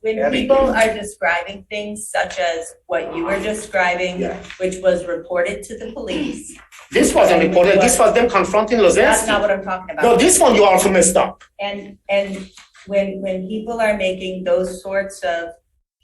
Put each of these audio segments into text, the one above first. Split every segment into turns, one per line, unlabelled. When
Abby.
people are describing things such as what you were describing,
Yeah.
which was reported to the police,
This wasn't reported, this was them confronting
that's not
Lozinski.
what I'm talking about.
No, this one you also messed up.
And, and when, when people are making those sorts of,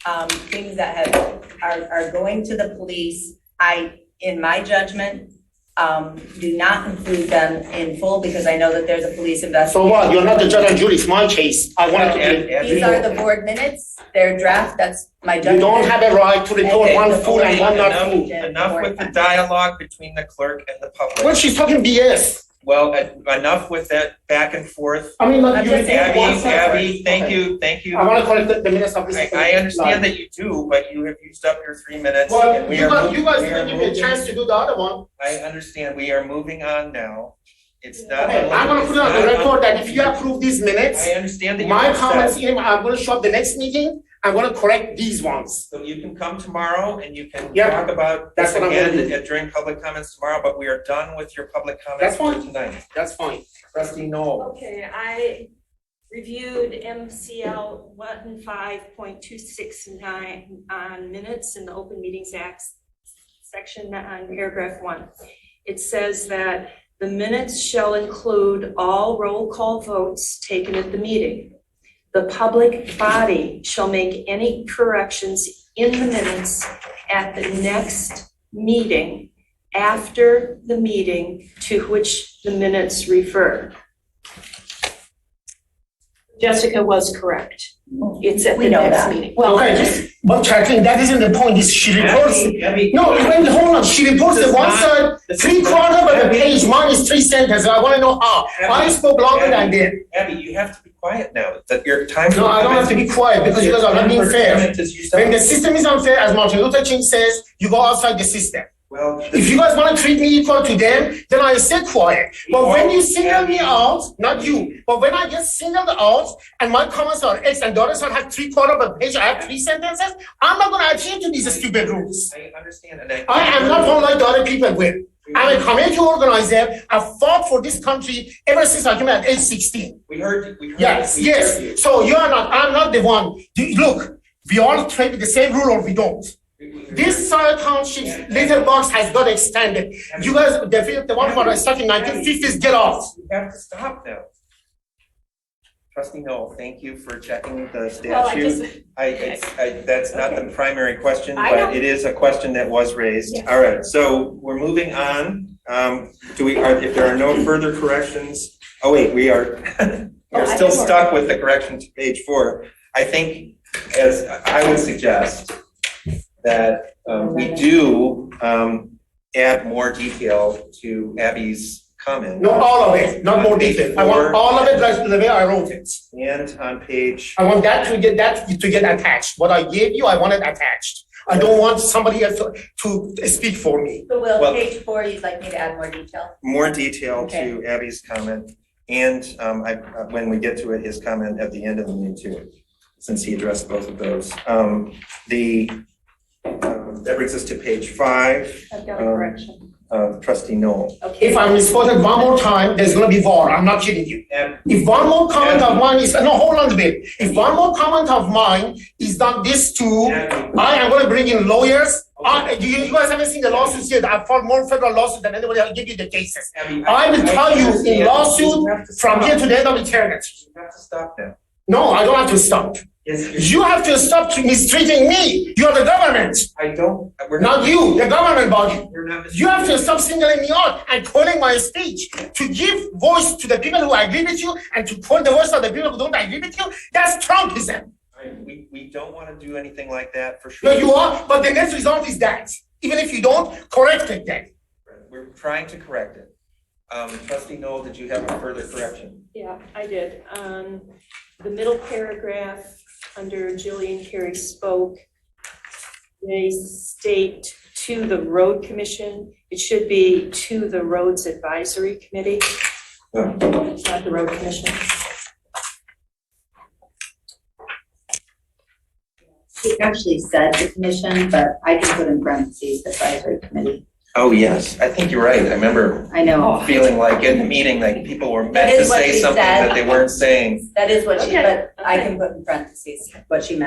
um, things that have, are, are going to the police, I, in my judgment, um, do not include them in full because I know that there's a police
So
investigation.
what, you're not the judge and jury, it's my case, I wanted to
Ab-
These are the board minutes, they're draft, that's my
be. You
judgment.
don't have a right to report
Okay,
one
the
fool and one not
enough-
fool.
Enough with the dialogue between the clerk and the
Well,
public.
she's talking BS.
Well, en- enough with that back and forth.
I mean, like
I'm
you
just saying
repeat
Abby,
one
one side.
Abby, thank
Okay.
you, thank you.
I wanna correct the- the minutes of this.
I, I understand that you do, but you have used up your three minutes and
Well,
we
you
are
guys,
moving,
you
we are
guys didn't give me a
moving.
chance to do the other one.
I understand, we are moving on now. It's not.
Okay, I'm gonna put it on the
it's not-
record that if you approve these minutes,
I understand that you're
my
upset.
comments here, I'm gonna show up the next meeting, I'm gonna correct these ones.
So you can come tomorrow and you can
Yeah,
talk about this
that's what I'm gonna
again at- during public comments tomorrow, but we are done with your public comments
That's
for
fine.
tonight.
That's fine.
Trustee Noel.
Okay, I reviewed MCL one five point two six nine on minutes in the Open Meetings Act section on paragraph one. It says that the minutes shall include all roll call votes taken at the meeting. The public body shall make any corrections in the minutes at the next meeting after the meeting to which the minutes refer. Jessica was correct. It's at
We
the
know
next
that.
meeting. Well, I just,
Okay, but Kathleen, that isn't the point, is she reports,
Abby, Abby,
no, even, hold on, she reports
This
the
is
one
not-
side,
this is
three
not-
quarter of the
Abby,
page, mine is three sentences, I wanna know how. I
Abby,
spoke longer than them.
Abby, you have to be quiet now, that your time.
No, I don't have to be quiet because you guys are not being fair. When the system is unfair, as Martin Luther King says, you go outside the system.
Well,
If you guys wanna treat me equal to them, then I stay quiet. But when you single me out, not you, but when I get singled out and my comments are X and the other side have three quarter of a page, I have three sentences, I'm not gonna adhere to these stupid rules.
I understand and I.
I am not one like the other people will. I'm a community organizer, I've fought for this country ever since I came at age sixteen.
We heard, you- we heard.
Yes,
we heard you.
yes, so you are not, I'm not the one, You- look, we all trade with the same rule or we don't.
We- we heard
This Soil Township's little box has got extended. You guys, the, the one who are stuck in nineteen fifties, get off.
You have to stop now. Trustee Noel, thank you for checking the statute.
well, I just,
I, it's, I, that's not the primary question,
I
but
know.
it is a question that was raised.
Yes.
All right, so we're moving on. Um, do we, are, if there are no further corrections, oh wait, we are,
Oh,
we're
I
still
think we're-
stuck with the correction to page four. I think, as I would suggest, that, um, we do, um, add more detail to Abby's comment.
Not all of it, not more detail. I want all of it like the way I wrote it.
And on page,
I want that to get, that to get attached. What I gave you, I want it attached. I don't want somebody else to, to speak for me.
So Will,
Well-
page four, you'd like me to add more detail?
more detail to
Okay.
Abby's comment, and um, I, uh, when we get to it, his comment at the end of the meeting too, since he addressed both of those. Um, The, um, that brings us to page five,
I've got
Um,
a correction.
uh, trustee Noel.
If
Okay,
I'm misquoted one more time, there's gonna be war. I'm not kidding you.
Ab-
If one more comment of mine is, no, hold on a bit. If one more comment of mine is done this to
Abby,
I am gonna bring in lawyers. I, you, you guys haven't seen the lawsuits yet. I filed more federal lawsuits than anybody. I'll give you the cases.
Abby,
I will tell you in
understand.
lawsuit
You have to
From
stop.
here to the end of eternity.
You have to stop now.
No, I don't have to stop.
Yes, you-
You have to stop to mistreating me. You're the government,
I don't, we're not.
not you, the government body.
You're not.
You have to stop singling me out and calling my speech to give voice to the people who agree with you and to call the voice of the people who don't agree with you. That's Trumpism.
I- We, we don't want to do anything like that for sure.
No, you are, but the next result is that. Even if you don't, correct it then.
We're trying to correct it. Um, trustee Noel, did you have a further correction?
yeah, I did. Um, the middle paragraph, under Jillian Carey spoke, they state to the road commission, it should be to the roads advisory committee.
Yeah.
It's not the road commission.
He actually said the commission, but I can put in parentheses advisory committee.
Oh, yes, I think you're right. I remember
I
Oh.
know.
feeling like in the meeting, like people were
That
meant to
is what
say
she
something
said.
that they weren't saying.
That is what she,
Okay,
but I
okay.
can put in parentheses what she meant.